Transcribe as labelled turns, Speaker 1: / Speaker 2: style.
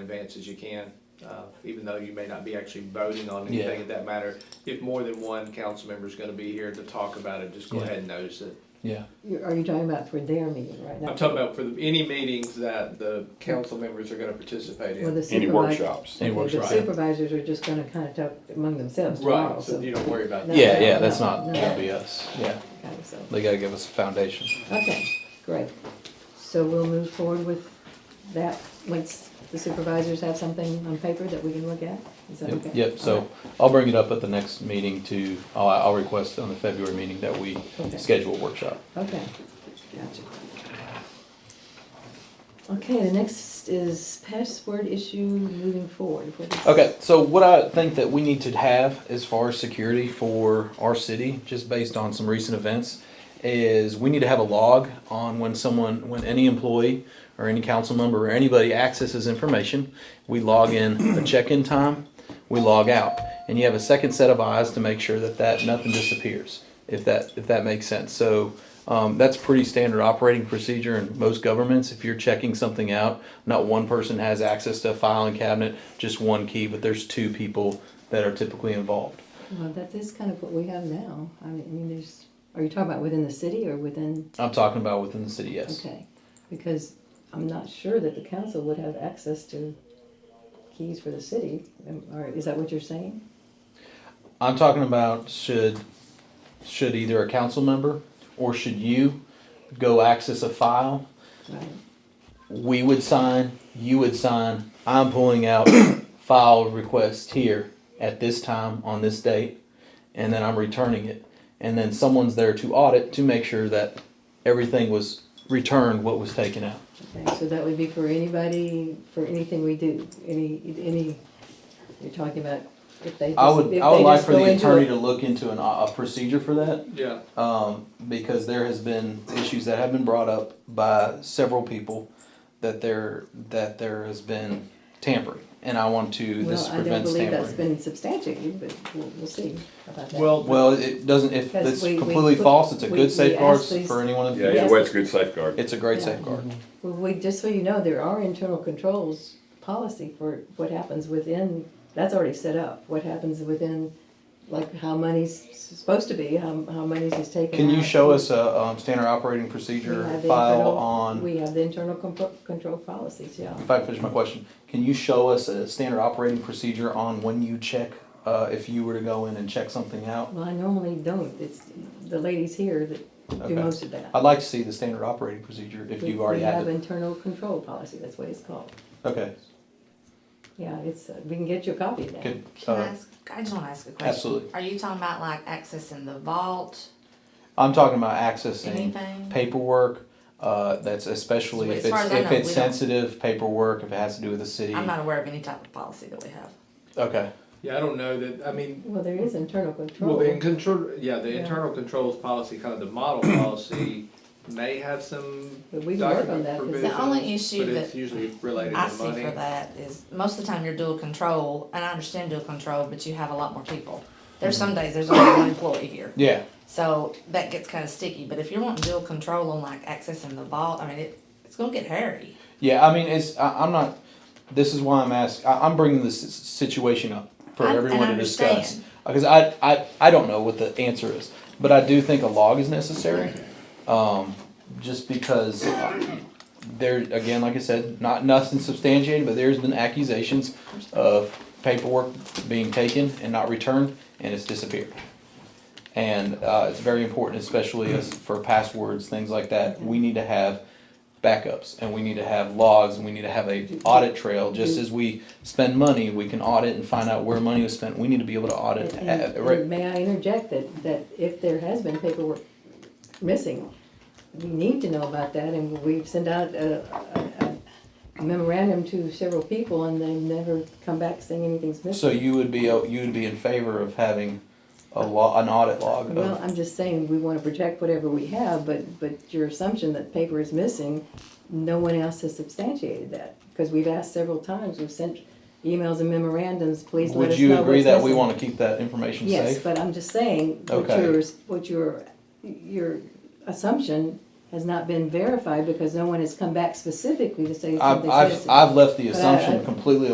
Speaker 1: advance as you can, uh, even though you may not be actually voting on
Speaker 2: Yeah.
Speaker 1: anything at that matter. If more than one council member is gonna be here to talk about it, just go
Speaker 2: Yeah.
Speaker 1: ahead and notice it.
Speaker 2: Yeah,
Speaker 3: You- Are you talking about for their meeting right now?
Speaker 1: I'm talking about for the- any meetings that the council members are gonna participate
Speaker 3: Well, the
Speaker 1: in.
Speaker 4: Any
Speaker 3: supervisor-
Speaker 4: workshops?
Speaker 2: Any
Speaker 3: okay, The
Speaker 2: workshops.
Speaker 3: supervisors are just gonna kind of talk among themselves tomorrow,
Speaker 1: Right, so
Speaker 3: so.
Speaker 1: you don't worry about
Speaker 3: No,
Speaker 1: that.
Speaker 2: yeah, yeah, that's
Speaker 3: no,
Speaker 2: not,
Speaker 3: no.
Speaker 2: gonna be us, yeah,
Speaker 3: Okay, so-
Speaker 2: they gotta give us a foundation.
Speaker 3: Okay, great. So we'll move forward with that once the supervisors have something on paper that we can look at? Is that
Speaker 2: Yep,
Speaker 3: okay?
Speaker 2: Yep, so I'll bring it up at the next meeting to, I'll, I'll request on the February meeting that we
Speaker 3: Okay.
Speaker 2: schedule a workshop.
Speaker 3: All right, Okay, gotcha. Okay, the next is password issue moving forward. What is-
Speaker 2: Okay, so what I think that we need to have as far as security for our city, just based on some recent events, is we need to have a log on when someone, when any employee or any council member or anybody accesses information. We log in a check-in time, we log out, and you have a second set of eyes to make sure that that nothing disappears. If that if that makes sense, so. Um, that's pretty standard operating procedure in most governments. If you're checking something out, not one person has access to a filing cabinet, just one key, but there's two people that are typically involved.
Speaker 3: Well, that is kind of what we have now. I mean, there's, are you talking about within the city or within,
Speaker 2: I'm talking about within the city, yes.
Speaker 3: okay? Because I'm not sure that the council would have access to keys for the city, um, or is that what you're saying?
Speaker 2: I'm talking about should should either a council member or should you go access a file
Speaker 3: Right,
Speaker 2: we would sign, you would sign, I'm pulling out file request here at this time on this date, and then I'm returning it. And then someone's there to audit to make sure that everything was returned, what was taken out.
Speaker 3: okay, so that would be for anybody, for anything we do, any, any, you're talking about if they.
Speaker 2: I
Speaker 3: just-
Speaker 2: would,
Speaker 3: if
Speaker 2: I would
Speaker 3: they
Speaker 2: like
Speaker 3: just
Speaker 2: for
Speaker 3: go
Speaker 2: the
Speaker 3: into
Speaker 2: attorney
Speaker 3: it.
Speaker 2: to look into an, a procedure for that.
Speaker 1: Yeah,
Speaker 2: um, because there has been issues that have been brought up by several people that there that there has been tampering, and I want to. this
Speaker 3: Well, I don't
Speaker 2: prevents
Speaker 3: believe
Speaker 2: tampering.
Speaker 3: that's been substantiated, but we'll, we'll see about that.
Speaker 1: well,
Speaker 2: Well, it doesn't. If
Speaker 3: Because
Speaker 2: it's
Speaker 3: we- we
Speaker 2: completely
Speaker 3: put-
Speaker 2: false, it's a
Speaker 3: we- we
Speaker 2: good safeguard
Speaker 3: ask these-
Speaker 2: for anyone in the
Speaker 4: Yeah,
Speaker 2: future.
Speaker 4: yeah, well, it's a good safeguard.
Speaker 2: It's a great
Speaker 3: Yeah.
Speaker 2: safeguard.
Speaker 3: Well, we, just so you know, there are internal controls policy for what happens within, that's already set up, what happens within, like how money's supposed to be, how, how money's is taken
Speaker 2: Can you
Speaker 3: out.
Speaker 2: show us a um, standard operating
Speaker 3: We
Speaker 2: procedure
Speaker 3: have the
Speaker 2: file
Speaker 3: internal-
Speaker 2: on?
Speaker 3: We have the internal comp- control policies, yeah.
Speaker 2: If I can finish my question, can you show us a standard operating procedure on when you check uh, if you were to go in and check something out?
Speaker 3: Well, I normally don't, it's the ladies here that
Speaker 2: Okay.
Speaker 3: do most of that.
Speaker 2: I'd like to see the standard operating procedure if
Speaker 3: We-
Speaker 2: you already had it.
Speaker 3: We have internal control policy, that's what it's called.
Speaker 2: Okay,
Speaker 3: Yeah, it's, uh, we can get you a copy of that.
Speaker 2: good.
Speaker 5: Can I
Speaker 2: Uh,
Speaker 5: ask, I just wanna ask a question.
Speaker 2: absolutely.
Speaker 5: Are you talking about like accessing the vault,
Speaker 2: I'm talking about accessing
Speaker 5: anything?
Speaker 2: paperwork, uh, that's especially
Speaker 5: But
Speaker 2: if
Speaker 5: as far
Speaker 2: it's,
Speaker 5: as I
Speaker 2: if
Speaker 5: know,
Speaker 2: it's
Speaker 5: we don't-
Speaker 2: sensitive paperwork, if it has to do with the city.
Speaker 5: I'm not aware of any type of policy that we have.
Speaker 2: Okay,
Speaker 1: yeah, I don't know that, I mean,
Speaker 3: Well, there is internal control.
Speaker 1: Well, the in- control, yeah, the
Speaker 3: Yeah.
Speaker 1: internal controls policy, kind of the model policy, may have some
Speaker 3: But we can work on
Speaker 1: document
Speaker 3: that, 'cause the
Speaker 1: provisions,
Speaker 5: only issue
Speaker 1: But it's
Speaker 5: that
Speaker 1: usually related
Speaker 5: I
Speaker 1: to
Speaker 5: see for
Speaker 1: money.
Speaker 5: that is, most of the time you're dual control, and I understand dual control, but you have a lot more people. There's some
Speaker 2: Mm-hmm.
Speaker 5: days there's only one employee here,
Speaker 2: yeah,
Speaker 5: so that gets kinda sticky, but if you're wanting dual control on like accessing the vault, I mean, it, it's gonna get hairy.
Speaker 2: yeah, I mean, it's, I, I'm not, this is why I'm asking, I, I'm bringing this s- situation up for
Speaker 5: I- and I
Speaker 2: everyone to discuss.
Speaker 5: understand.
Speaker 2: Because I, I, I don't know what the answer is, but I do think a log is necessary. Um, just because uh, there, again, like I said, not nothing substantiated, but there's been accusations of paperwork being taken and not returned, and it's disappeared. And uh, it's very important, especially as for passwords, things like that. We need to have backups, and we need to have logs, and we need to have a audit trail. Just as we spend money, we can audit and find out where money was spent. We need to be able to audit.
Speaker 3: And-
Speaker 2: uh,
Speaker 3: and-
Speaker 2: right-
Speaker 3: and May I interject that, that if there has been paperwork missing, we need to know about that, and we've sent out a a memorandum to several people, and they never come back saying anything's missing.
Speaker 2: So you would be, uh, you would be in favor of having a law, an audit log
Speaker 3: Well,
Speaker 2: of,
Speaker 3: I'm just saying, we wanna protect whatever we have, but, but your assumption that paper is missing, no one else has substantiated that, because we've asked several times, we've sent emails and memorandums, please let
Speaker 2: would
Speaker 3: us know
Speaker 2: you agree
Speaker 3: what's
Speaker 2: that we
Speaker 3: missing."
Speaker 2: wanna keep that information
Speaker 3: Yes,
Speaker 2: safe?
Speaker 3: but I'm just saying, what
Speaker 2: Okay.
Speaker 3: your, what your, your assumption has not been verified because no one has come back specifically to say
Speaker 2: I've,
Speaker 3: something.
Speaker 2: I've,
Speaker 3: specific.
Speaker 2: I've left the
Speaker 3: But I-
Speaker 2: assumption
Speaker 3: I-
Speaker 2: completely